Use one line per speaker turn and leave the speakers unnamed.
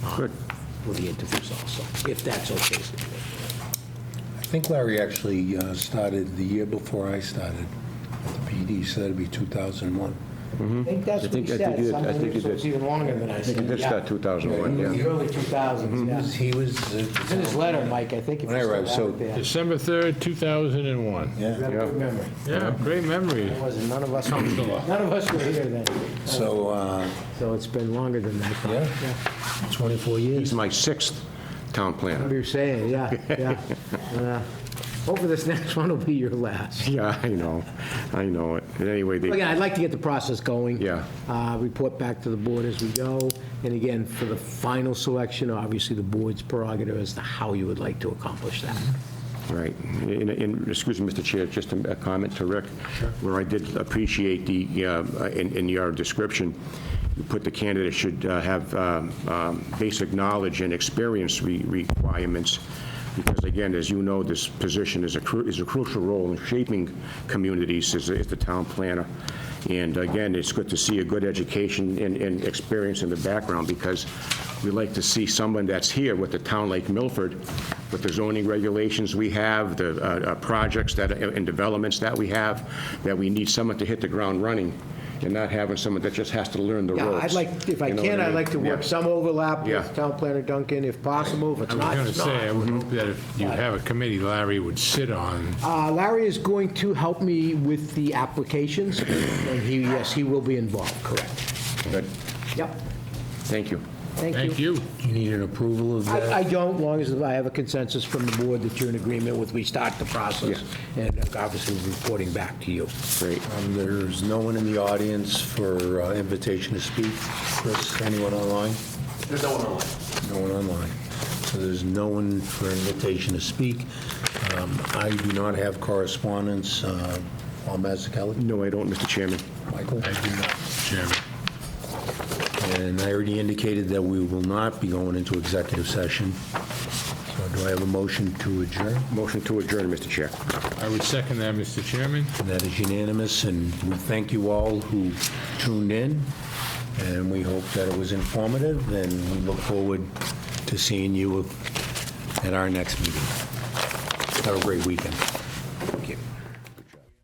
Good.
for the interviews also, if that's okay.
I think Larry actually uh, started the year before I started at the PD, so that'd be 2001.
I think that's
I
what he
think- I
said.
think you- I
Something
think you
so it's
did.
even longer than I
I think
said.
it did
yeah.
start 2001,
In the
yeah. Mm-hmm.
early 2000s,
He
yeah.
was- He was,
It's in his
uh,
letter, Mike, I think if
When I
you still
arrived,
have
so-
it there. You
December 3rd, 2001.
yeah,
have a good memory.
Yeah, great memory.
It wasn't, none of us, none of us were here then.
so, uh,
So it's been longer than that.
yeah, 24 years.
He's my sixth town planner.
Remember you saying, yeah, yeah. yeah. Hopefully this next one will be your last.
Yeah, I know, I know it. And Anyway, they,
Again, I'd like to get the process going.
Yeah.
Uh, Report back to the board as we go. And again, for the final selection, obviously, the board's prerogative as to how you would like to accomplish that.
right. And, and- excuse me, Mr. Chair, just a a comment to Rick, where I did appreciate the, uh, in, in your description, you put the candidate should uh, have um, um, basic knowledge and experience re- requirements, because again, as you know, this position is a, cru- is a crucial role in shaping communities as, a- as the town planner. And again, it's good to see a good education and, and experience in the background, because we like to see someone that's here with the town like Milford, with the zoning regulations we have, the uh, uh, projects that, are- and developments that we have, that we need someone to hit the ground running, and not having someone that just has to learn the ropes.
Yeah, I'd like, if I
You know
can,
what
I'd
mean?
like to
Yeah.
work some overlap
Yeah.
with Town Planner Duncan, if possible, if it's
I was
not,
going to
it's not.
say, I would hope that if you have a committee Larry would sit on,
Uh, Larry is going to help me with the applications, and he, yes, he will be involved, correct.
Good.
Yep,
Thank you.
thank
thank
you.
you.
You need an approval of
I I
that?
don't, long as I have a consensus from the board that you're in agreement with, we start the process, and obviously reporting back to you.
Great.
Um, There's no one in the audience for uh, invitation to speak. Chris, anyone online? There's no one online. No one online. So there's no one for invitation to speak. Um, I do not have correspondence. Uh, Paul Mazzucchelli?
No, I don't, Mr. Chairman.
Michael?
I do not, Chairman.
And I already indicated that we will not be going into executive session. So do I have a motion to adjourn?
Motion to adjourn, Mr. Chair.
I would second that, Mr. Chairman.
And that is unanimous, and we thank you all who tuned in, and we hope that it was informative, and we look forward to seeing you at our next meeting. Have a great weekend.